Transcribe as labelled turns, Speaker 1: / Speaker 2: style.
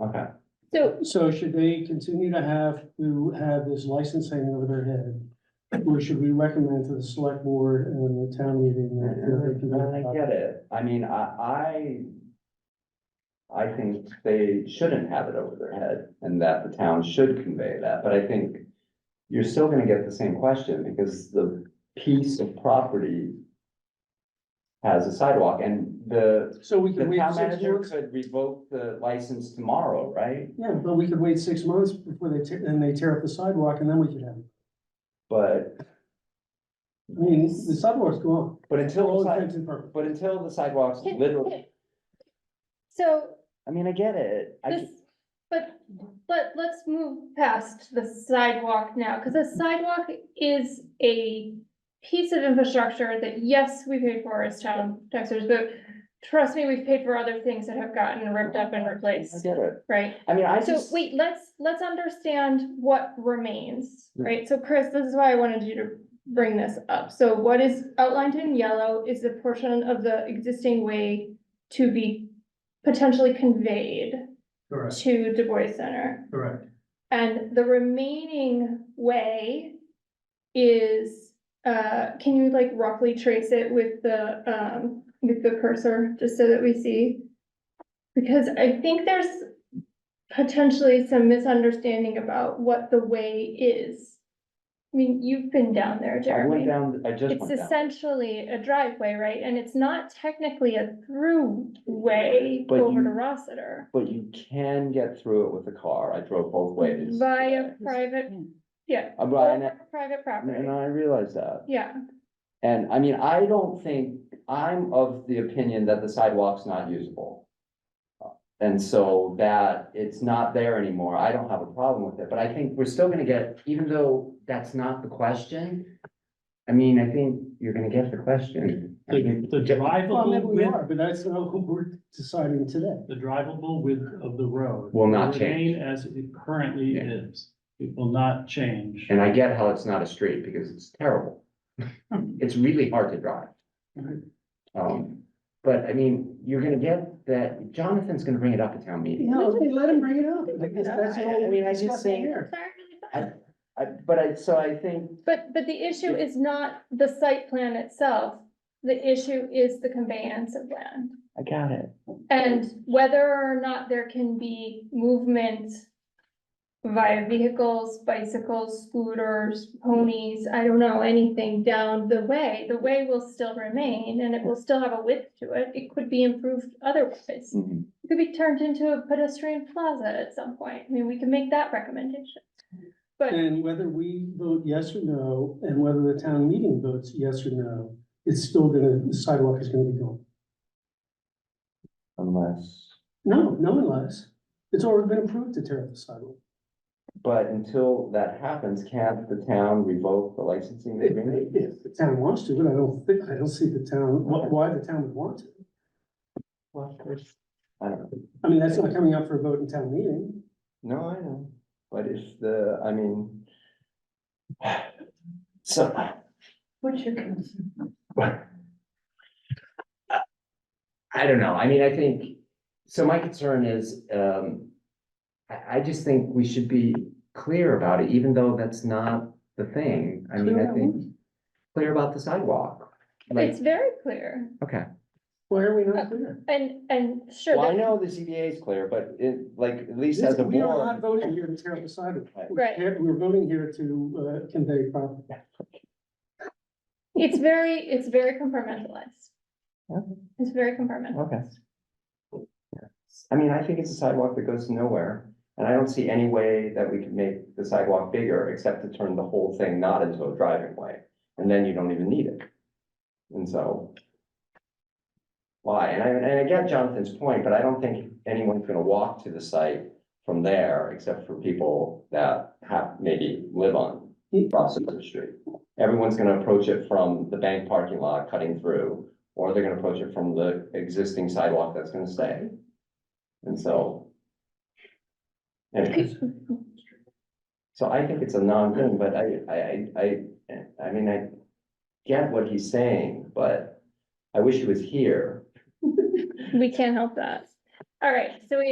Speaker 1: Okay,
Speaker 2: So,
Speaker 3: So should they continue to have, to have this license hanging over their head? Or should we recommend to the select board and the town meeting that they
Speaker 1: I
Speaker 3: can?
Speaker 1: get it. I mean, I, I, I think they shouldn't have it over their head and that the town should convey that, but I think you're still gonna get the same question because the piece of property has a sidewalk and the,
Speaker 3: So we
Speaker 1: the
Speaker 3: can wait
Speaker 1: town
Speaker 3: six
Speaker 1: manager
Speaker 3: months?
Speaker 1: could revoke the license tomorrow, right?
Speaker 3: Yeah, but we could wait six months before they, tear- and they tear up the sidewalk and then we could have it.
Speaker 1: But,
Speaker 3: I mean, the sidewalk's gone.
Speaker 1: but
Speaker 3: For
Speaker 1: until,
Speaker 3: all
Speaker 1: the
Speaker 3: intents
Speaker 1: si-
Speaker 3: and purposes.
Speaker 1: but until the sidewalks literally,
Speaker 2: so
Speaker 1: I mean, I get it. I
Speaker 2: this, but, but let's move past the sidewalk now, because the sidewalk is a piece of infrastructure that, yes, we paid for as town taxers, but trust me, we've paid for other things that have gotten ripped up and
Speaker 1: I
Speaker 2: replaced,
Speaker 1: get it.
Speaker 2: right?
Speaker 1: I mean, I
Speaker 2: So
Speaker 1: just.
Speaker 2: wait, let's, let's understand what remains,
Speaker 1: Yeah.
Speaker 2: right? So Chris, this is why I wanted you to bring this up. So what is outlined in yellow is the portion of the existing way to be potentially conveyed
Speaker 3: Correct,
Speaker 2: to Du Bois Center.
Speaker 3: correct.
Speaker 2: And the remaining way is, uh, can you like roughly trace it with the, um, with the cursor, just so that we see? Because I think there's potentially some misunderstanding about what the way is. I mean, you've been down there,
Speaker 1: I went
Speaker 2: Jeremy.
Speaker 1: down, I just
Speaker 2: It's
Speaker 1: went down,
Speaker 2: essentially a driveway, right? And it's not technically a through way
Speaker 1: But
Speaker 2: over
Speaker 1: you-
Speaker 2: to Rossiter.
Speaker 1: but you can get through it with a car, I drove both ways.
Speaker 2: Via
Speaker 1: today.
Speaker 2: private, yeah.
Speaker 1: Uh, but- and I-
Speaker 2: over Private property,
Speaker 1: And I realize that,
Speaker 2: yeah,
Speaker 1: and I mean, I don't think, I'm of the opinion that the sidewalk's not usable. Uh, And so that it's not there anymore, I don't have a problem with it, but I think we're still gonna get, even though that's not the question. I mean, I think you're gonna get the question. I
Speaker 4: The,
Speaker 1: mean,
Speaker 4: the
Speaker 3: Well, maybe
Speaker 4: drivable
Speaker 3: we
Speaker 4: width,
Speaker 3: are, but that's not what we're deciding today.
Speaker 4: the drivable width of the road.
Speaker 1: Will not
Speaker 4: remain As it currently
Speaker 1: Yeah.
Speaker 4: is. It will not change.
Speaker 1: And I get how it's not a street, because it's terrible. It's really hard to drive.
Speaker 4: Right.
Speaker 1: Um, but I mean, you're gonna get that, Jonathan's gonna bring it up at town meeting.
Speaker 3: No, okay, let him bring it up. I guess that's
Speaker 1: I- I
Speaker 3: all
Speaker 1: mean, I
Speaker 3: we're
Speaker 1: just
Speaker 3: discussing
Speaker 1: think-
Speaker 3: here.
Speaker 2: entirely
Speaker 1: I-
Speaker 2: fine.
Speaker 1: I, but I, so I think,
Speaker 2: But, but the issue is not the site plan itself, the issue is the conveyance of land.
Speaker 1: I got it.
Speaker 2: And whether or not there can be movement via vehicles, bicycles, scooters, ponies, I don't know, anything down the way. The way will still remain and it will still have a width to it, it could be improved otherwise.
Speaker 1: Mm-hmm.
Speaker 2: It could be turned into a pedestrian plaza at some point. I mean, we can make that recommendation. But
Speaker 3: And whether we vote yes or no, and whether the town meeting votes yes or no, it's still gonna, the sidewalk is gonna be gone.
Speaker 1: Unless,
Speaker 3: No, no unless, it's already been approved to tear up the sidewalk.
Speaker 1: but until that happens, can't the town revoke the licensing
Speaker 3: If,
Speaker 1: agreement?
Speaker 3: if the town wants to, but I don't think, I don't see the town, wh- why the town would want to.
Speaker 1: Well, of course. I don't know,
Speaker 3: I mean, that's not coming up for a vote in town meeting.
Speaker 1: no, I know, but if the, I mean. So,
Speaker 5: What's your concern?
Speaker 1: I don't know, I mean, I think, so my concern is, um. I, I just think we should be clear about it, even though that's not the thing, I mean,
Speaker 3: Clear
Speaker 1: I
Speaker 3: about
Speaker 1: think. Clear about the sidewalk, like,
Speaker 2: it's very clear
Speaker 1: okay,
Speaker 3: Why are we not clear?
Speaker 2: and, and sure.
Speaker 1: well, I
Speaker 2: that-
Speaker 1: know the ZBA is clear, but it, like, at least as a
Speaker 3: We are not
Speaker 1: board.
Speaker 3: voting here to tear up the sidewalk. We're
Speaker 2: Right.
Speaker 3: here- We're voting here to, uh, convey property.
Speaker 2: It's very, it's very compartmentalized.
Speaker 1: Okay.
Speaker 2: It's very compartmentalized.
Speaker 1: Okay. I mean, I think it's a sidewalk that goes nowhere, and I don't see any way that we could make the sidewalk bigger except to turn the whole thing not into a driving way, and then you don't even need it. And so. Why? And I, and I get Jonathan's point, but I don't think anyone's gonna walk to the site from there except for people that have, maybe live on Rossiter Street. Everyone's gonna approach it from the bank parking lot cutting through, or they're gonna approach it from the existing sidewalk that's gonna stay. And so. anyways, so I think it's a non-thing, but I, I, I, I, I mean, I get what he's saying, but I wish he was here.
Speaker 2: We can't help that. All right, so we